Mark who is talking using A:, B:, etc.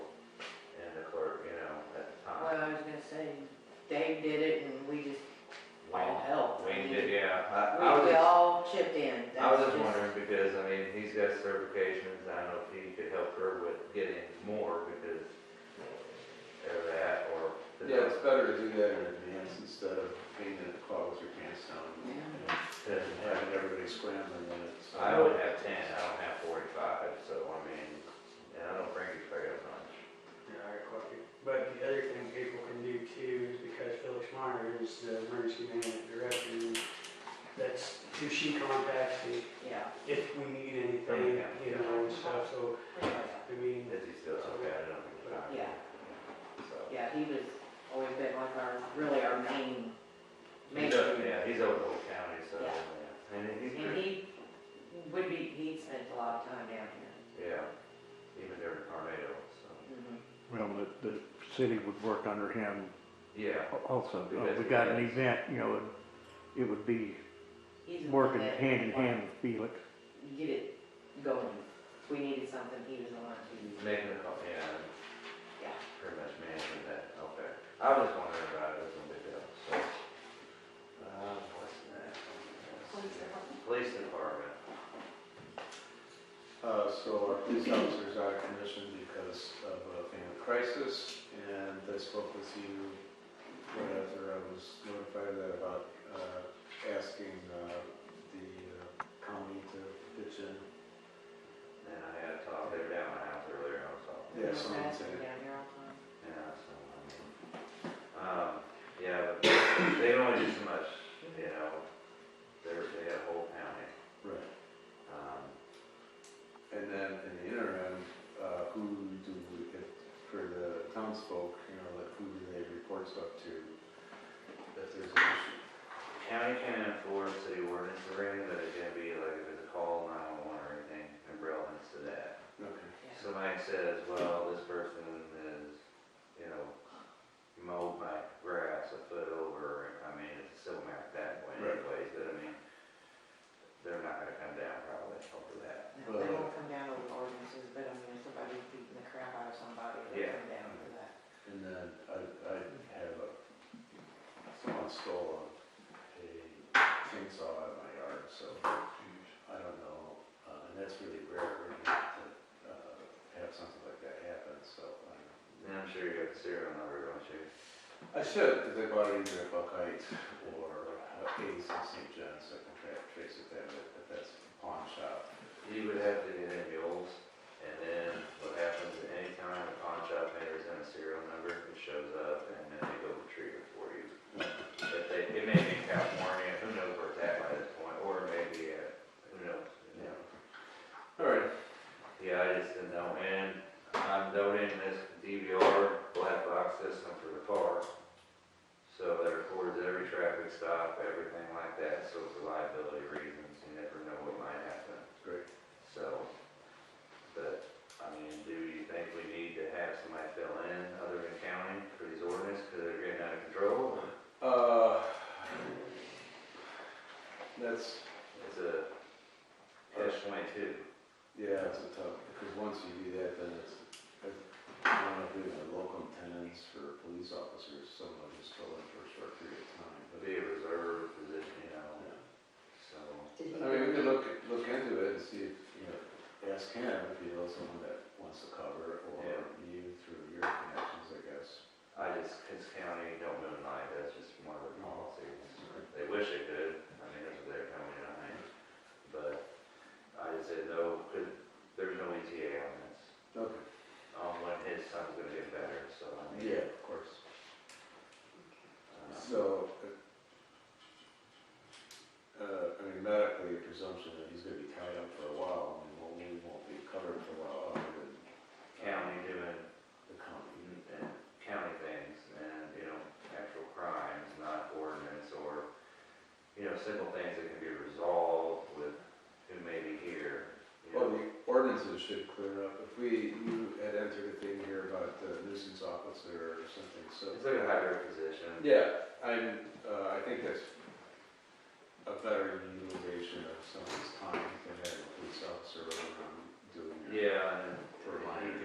A: Dave did it and we just all helped. I
B: Wayne
A: mean,
B: did, yeah. I- I
A: We,
B: was
A: we
B: just-
A: all chipped in.
B: I was
A: That's
B: just wondering, because, I mean, he's got certifications, I don't know if he could help her with getting more, because of that, or.
C: Yeah, it's better to do that in advance instead of being in the car with your pants down
A: Yeah.
C: and having everybody scrambling when it's. uh,
B: I would have ten, I don't have forty-five, so, I mean, and I don't bring you very much.
D: Yeah, I got lucky. But the other thing people can do too is because Felix Meyer is the emergency management director, that's who she contacts me
A: Yeah.
D: if we need anything, you know, and stuff, so,
A: Yeah.
D: I mean,
B: Is he still, okay, I don't think he's
A: Yeah.
B: so.
A: Yeah, he was always been like our, really our main, main.
B: He's up- Yeah, he's over the whole county, so,
A: Yeah.
B: yeah. and he's
A: And
B: pretty,
A: he would be, he spent a lot of time down here.
B: yeah, even during tornadoes, so,
A: Mhm.
E: Well, the, the city would work under him
B: yeah.
E: also. If we got an event, you know, it would be
A: He's the one
E: working
A: that-
E: hand in hand with Felix.
A: Get it going. If we needed something, he was the one to,
B: Making it, up, yeah,
A: yeah.
B: pretty much managing that, okay. I was wondering about it, it was no big deal, so. Um, what's next? Police department. Police department,
C: Uh, so our police officers are out of commission because of a family crisis, and I spoke with you right after I was notified of that about, uh, asking, uh, the uh, county to pitch in.
B: and I had a talk, they were down my house earlier, I was talking.
C: Yeah, someone
A: That's
C: said-
A: been down here all the time.
B: Yeah, so, I mean, um, yeah, but they can only do so much, you know, they're, they have a whole county,
C: Right.
B: um,
C: And then in the interim, uh, who do, we- if, for the townsfolk, you know, like who do they report stuff to? If there's an issue.
B: County can enforce city ordinance already, but it can be like if it's a call, nine-one-one or anything, umbrella into that.
C: Okay.
A: Yeah.
B: Somebody says, well, this person is, you know, mowed my grass a foot over, I mean, it's a civil matter that way
C: Right.
B: anyways, but I mean, they're not gonna come down probably over that.
A: No, They won't come down over ordinances, but I mean, if somebody's beating the crap out of somebody, they'll
B: Yeah.
A: come down for that.
C: And then I, I have a, someone stole a, a chainsaw out of my yard, so I don't know. Uh, and that's really rare, really, to, uh, have something like that happen, so I don't know.
B: And I'm sure you have the serial number, don't you?
C: I should, because I bought it either at Buckeye or Ace in St. John's, so I can try to trace it that way, but that's a pawn shop.
B: You would have to get in mules, and then what happens at any time a pawn shop vendor's in a serial number, it shows up, and then they go retrieve it for you. If they, it may be in California, who knows where it's at by this point, or maybe, uh, who knows, you know?
C: All right.
B: Yeah, I just didn't know, and I'm donating this DVR black box system for the park. So that records every traffic stop, everything like that, so for liability reasons, you never know what might happen,
C: Great.
B: so. But, I mean, do you think we need to have somebody fill in other than county for these ordinances, because they're getting out of control?
C: Uh, that's,
B: It's a catch twenty-two.
C: yeah, it's a tough, because once you do that, then it's, I don't know if we have local tenants for police officers, someone just fill in for a short period of time,
B: It'll
C: but.
B: be a reserve position, you know,
C: yeah.
B: so.
A: Did he
C: I mean, we could look, look into it and see if, you know, ask him if he knows someone that wants to cover it, or you through your connections, I guess.
B: I just, his county don't moonlight, that's just one of their policies. They wish they could, I mean, that's what they're telling me, I mean, but I just said, no, could, there's no ETA on this.
C: Okay.
B: On when his son's gonna get better, so I mean.
C: Yeah, of course.
B: uh,
C: So, uh, uh, I mean, medically, your presumption that he's gonna be tied up for a while, and won't, we won't be covered for a while, other than
B: County doing,
C: the county.
B: and county things, and, you know, actual crimes, not ordinance, or, you know, simple things that can be resolved with who may be here. you
C: Well,
B: know.
C: the ordinances should clear up, if we, you had entered a thing here about the nuisance officer or something, so.
B: It's like a higher position,
C: Yeah, I'm, uh, I think that's a better utilization of someone's time than having a police officer running around doing. your-
B: yeah, and.
C: For mine.